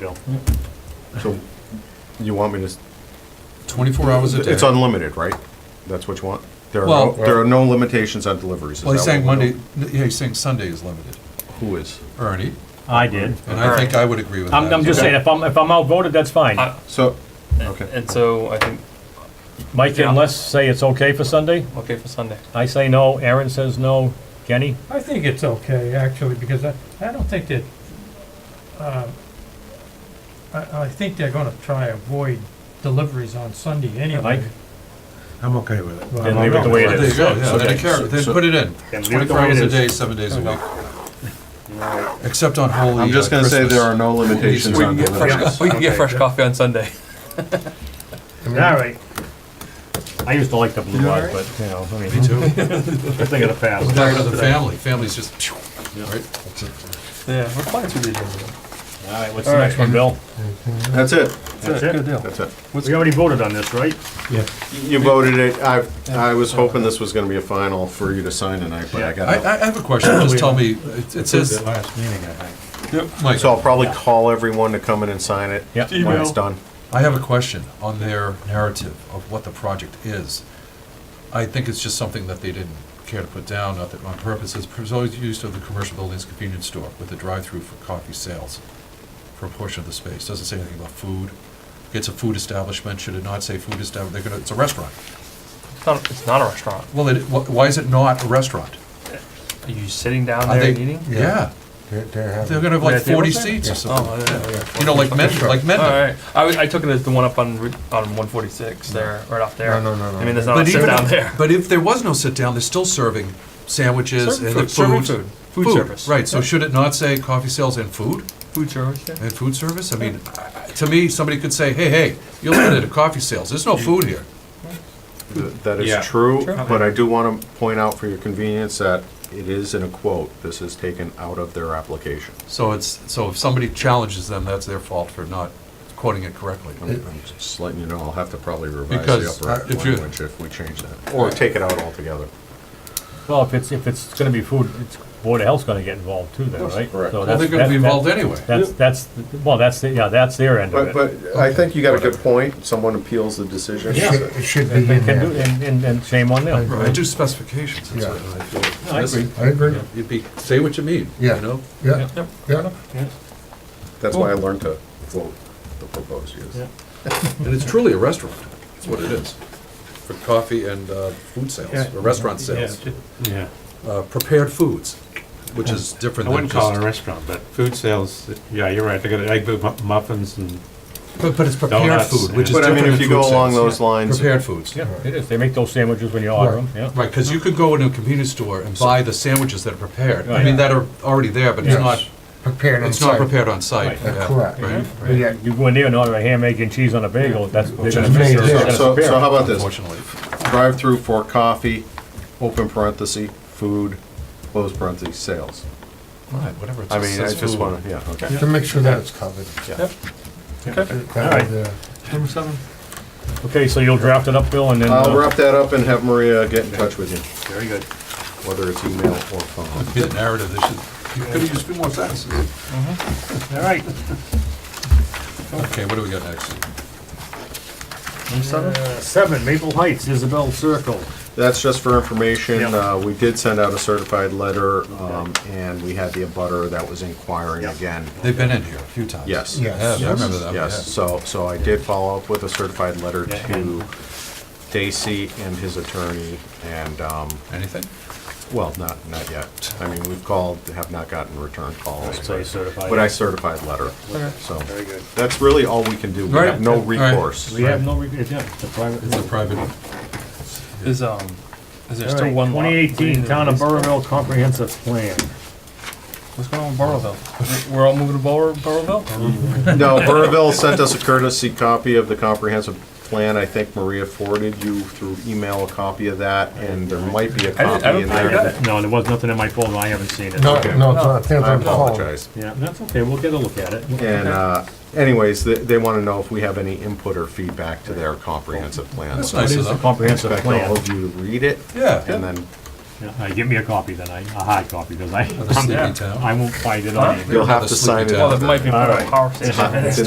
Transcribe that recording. know. So you want me to, s- 24 hours a day. it's unlimited, right? That's what you want? There are, Well- no- there are no limitations on deliveries. is Well, he's that saying what we're Monday, yeah, he's saying Sunday is limited, doing? Who is? Ernie, I did. and I think I would agree with that. I'm, I'm just saying, if I'm, if I'm outvoted, that's fine. I- So, And- okay. And so I think, Mike and Les say it's okay for Sunday. okay for Sunday. I say no. Aaron says no. Kenny? I think it's okay, actually, because I, I don't think that, um, I, I think they're gonna try to avoid deliveries on Sunday Mike? anyway. I'm okay with it. Then leave it the way it There you is. go, yeah, then it car- then put it in, Then leave it the 24 way it hours a is. day, seven days a week. Except on Holy uh, I'm just gonna say there are no limitations We on deliveries. We can get fresh coffee on Sunday. All right. I used to like the blue light, but, you know, I mean, Me too. good thing of the past. Back to the family, family's just, phew, right? Yeah, we're fine through the agenda. All right, what's the next one, Bill? That's it, That's it? deal. that's it. We already voted on this, right? Yeah. You voted it, I, I was hoping this was gonna be a final for you to sign tonight, but I I, got I I have a question, just tell me, it it says, last meeting, I think. Mike, So I'll probably call everyone to come in and sign it. Yep. When it's done. I have a question on their narrative of what the project is. I think it's just something that they didn't care to put down, not that on purpose, it's always used of the commercial building's convenience store with a drive-through for coffee sales for a portion of the space, doesn't say anything about food. It's a food establishment, should it not say food establishment, they're gonna, it's a restaurant. It's not, it's not a restaurant. Well, it, wh- why is it not a restaurant? Are you sitting down Are there they- and eating? Yeah, They're, they're they're having, gonna have Yeah, like I think forty we're saying- seats or Oh, something, yeah, yeah. you know, like Mendon, like All Mendon. right. I, was- I took it as the one up on, Route- on one forty-six there, right off there. No, no, no, no. I mean, there's not a Oh, sit even down if- there. But if there was no sit down, they're still serving sandwiches Serving and the food, serving food. food, food service. Right, so should it not say coffee sales and food, Food service, yeah. and food service? I mean, I- I- to me, somebody could say, hey, hey, you're limited to coffee sales, there's no food here. Th- That Yeah. is true, Sure. but I do want to point out for your convenience that it is in a quote. This is taken out of their application. So it's, so if somebody challenges them, that's their fault for not quoting it correctly. I'm I'm just letting you know, I'll have to probably revise Because, the uh, upper if you- language if we change that. Or take it out altogether. Well, if it's, if it's gonna be food, it's, Board of Health's gonna get involved too then, right? correct. So Well, they're that's- gonna be that- that- involved anyway. That's, that's, well, that's, the- yeah, that's their end But, of it. but I think you got a good point. Someone appeals the decision. it should be They in can do, there. and, and, and shame on them. I do specifications, that's Yeah. what I feel. I agree. I agree, You'd be, say what you mean, you Yeah. know? yeah, Yep. yeah. That's why I learned to vote the proposed use. And it's truly a restaurant, that's what it is, for coffee and uh, food sales, Yeah. or restaurant Yeah, sales. ju- Yeah, uh, prepared foods, which is different I than wouldn't call it a just. restaurant, but food sales, yeah, you're right, they got egg mu- muffins and, But, but it's prepared Donuts, food, which is But I different mean, if than you food go along sales. those lines, Prepared foods. Yeah, it is. They make those sandwiches when you order them, Right. yeah. Right, because you could go into a convenience store and buy the sandwiches that are prepared. I Right. mean, that are already there, but it's Yes. not, Prepared and it's not served. prepared on site. Right. yeah, Correct. right, But right. yeah, You go in there and order a ham, egg, and cheese on a bagel, that's, they're gonna is miss made it, there. they're so, gonna so how prepare. about this? Unfortunately. Drive-through for coffee, open parenthesis, food, close parenthesis, sales. Right, whatever. it I says, mean, I says just food. want to, yeah, okay. To make sure that it's covered. Yeah. All right. Covered, uh, number seven? Okay, so you'll draft it up, Bill, and then. I'll uh, wrap that up and have Maria get in touch with you, Very good. whether it's email or phone. Be the narrative, they should, you could have used a few more sentences. All right. Okay, what do we got next? Uh, Seven, Maple Heights, Isabel Circle. That's just for information. Yep. Uh, We did send out a certified letter, um, and we had the abutter that was inquiring Yep. again. They've been in here a few times. Yes. Yeah, Yes. I remember that. Yes, yeah. so, so I did follow up with a certified letter Yeah. to Dacey and his attorney, and, um, Anything? well, not, not yet. I mean, we've called, have not gotten return calls, So you certify. but I it. certified letter, so. Very good. That's really all we can do. We Right. have no All right. recourse. We have no, reg- yeah, it's a private. It's a private. Is, um, is there All still right, one lot? 2018 Town of Burrville Comprehensive Plan. What's going on with Burrowville? We're all moving to Burrow- Burrowville? No, Burrville sent us a courtesy copy of the comprehensive plan. I think Maria forwarded you through email a copy of that, and there might be a I didn't- I copy don't in think I got there. it. No, there was nothing in my folder, I haven't seen it. No, no, Okay. it's not, they're I on the phone. apologize. Yeah, that's okay, we'll get a look at it. And uh, anyways, they, they want to know if we have any input or feedback to their comprehensive plan. That's So I nice of It's a them. comprehensive expect all plan. of you to read it Yeah. and then Yeah, uh, Give me a copy then, I- a hard copy, because I, Of the sleepy I'm- town. I won't find it on here. You'll have to Sleepy sign it. town. Well, it might be All part right. of power. It's in